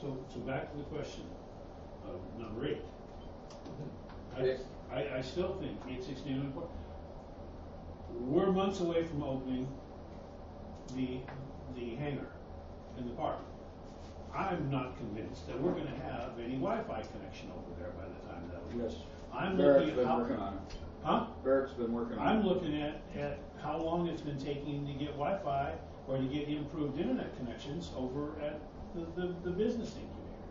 So, so back to the question of number eight. I, Yes. I, I still think eight sixteen and four. We're months away from opening the, the hangar in the park. I'm not convinced that we're gonna have any Wi-Fi connection over there by the time that. opens. Yes. I'm Barrett's looking at been how. working on it. Huh? Barrett's been working on it. I'm looking at, at how long it's been taking to get Wi-Fi or to get improved internet connections over at the, the, the business incubator.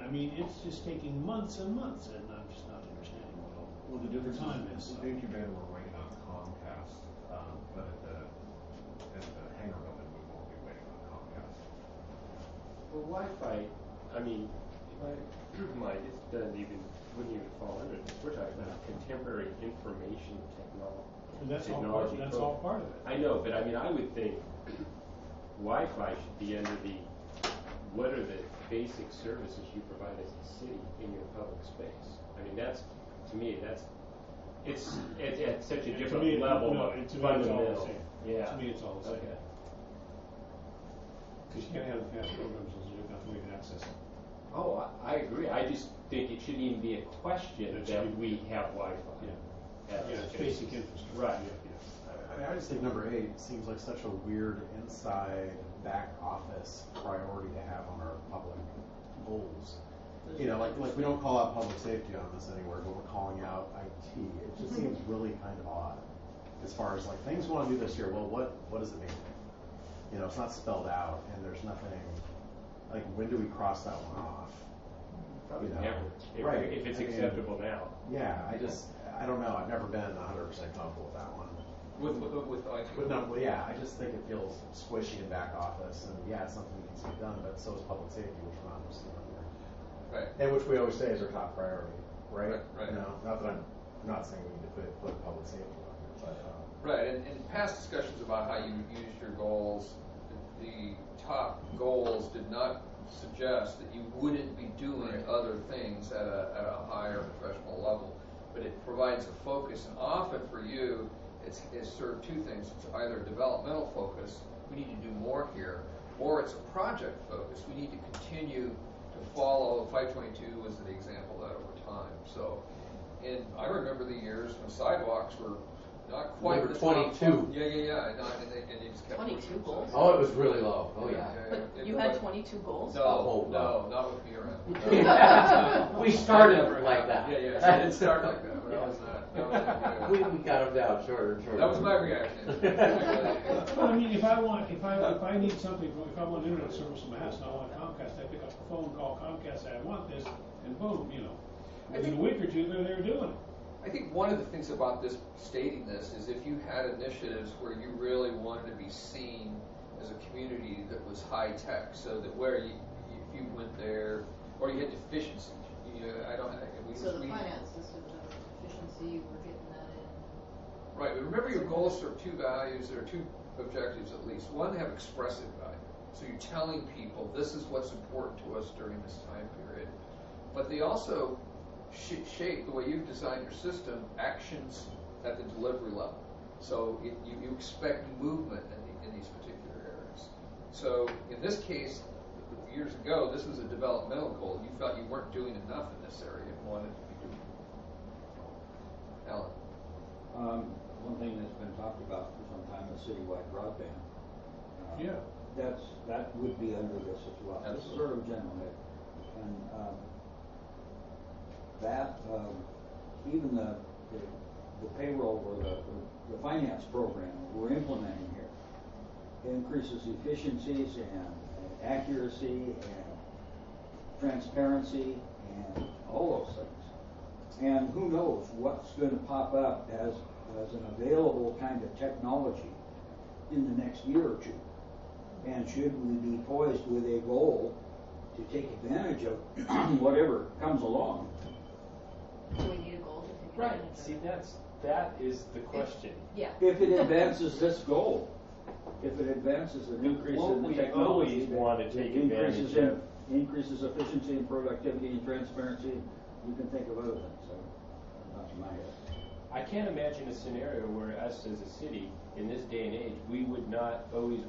I, I mean, it's just taking months and months, and I'm just not understanding what all. Well, the difference Time is, is- the incubator, we're waiting on Comcast, um, but at the, at the hangar building, we won't be waiting on Comcast. Well, Wi-Fi, I mean, my, my, it doesn't even, wouldn't even fall under this. We're talking about contemporary information technology. But that's all part, that's all part of it. I know, but I mean, I would think Wi-Fi should be under the, what are the basic services you provide as a city in your public space? I mean, that's, to me, that's, it's, it's at such To a me, different it- level no, of it- to me, it's all the fundamental. same. Yeah. To me, it's all the same. Okay. Because you can't have fast programs unless you have way to access them. Oh, I, I agree. I just think it shouldn't even be a question That should that be- we have Wi-Fi. Yeah. That's- Yeah, it's basic infrastructure. Right. Yeah, yeah. I- I mean, I just think number eight seems like such a weird inside back office priority to have on our public goals. You know, like, like we don't call out public safety on this anywhere, but we're calling out IT. It just seems really kind of odd as far as like things we want to do this year. Well, what, what does it mean? You know, it's not spelled out and there's nothing, like, when do we cross that one off? Probably You know, never. If- right, If it's I mean- acceptable now. Yeah, I just, I don't know. I've never been hundred percent comfortable with that one. With, with, with like. But no, well, yeah, I just think it feels squishy in back office, and yeah, it's something that needs to be done, but so is public safety, which we're not listing on here. Right. And which we always say is our top priority, right? Right, right. You know, not that I'm, I'm not saying we need to put, put public safety on here, but, um, Right, and, and past discussions about how you use your goals, the top goals did not suggest that you wouldn't be doing other things at a, at a higher professional level. But it provides a focus, and often for you, it's, it's sort of two things. It's either developmental focus, we need to do more here, or it's a project focus, we need to continue to follow, five twenty-two was the example of that over time, so. And I remember the years when sidewalks were not quite. Number the top 22. Yeah, yeah, yeah, and, I- and they, and they just kept. 22 pushing. goals? Oh, it was really low. Oh, yeah. But you had twenty-two goals? No, Oh, wow. no, not with me around. we started like that. Yeah, yeah, I didn't start like that, but I was not, that wasn't We, good. we got them down shorter and shorter. That was my reaction. Well, I mean, if I want, if I, if I need something, if I want internet service in my house and I want Comcast, I pick up the phone, call Comcast, say, I want this, and boom, you know. Within a week or two, they're, they're doing it. I think one of the things about this, stating this, is if you had initiatives where you really wanted to be seen as a community that was high-tech, so that where you, if you went there, or you had deficiencies, you know, I don't, we just So the read- finance district of efficiency, we're getting that in. Right, but remember your goals serve two values, there are two objectives at least. One, have expressive value. So you're telling people this is what's important to us during this time period. But they also should shape the way you've designed your system, actions at the delivery level. So it, you, you expect movement in, the, in these particular areas. So in this case, years ago, this was a developmental goal. You felt you weren't doing enough in this area and wanted to be doing. more. Alan. Um, one thing that's been talked about for some time is citywide broadband. Uh, Yeah. That's, that would be under this as well. This is sort of general, and, um, that, um, even the, the- the payroll or the, the finance program we're implementing here increases efficiencies and and accuracy and transparency and all those things. And who knows what's going to pop up as, as an available kind of technology in the next year or two. And should we be poised with a goal to take advantage of whatever comes along? Do we need a goal to take Right, advantage of? it? see, that's, that is the question. Yeah. If it advances this goal, if it advances an increase Well, in the we technology. always that- wanna that take increases advantage in- Increases efficiency and productivity and transparency, you can think of other things, so, not in my head. I can't imagine a scenario where us as a city, in this day and age, we would not always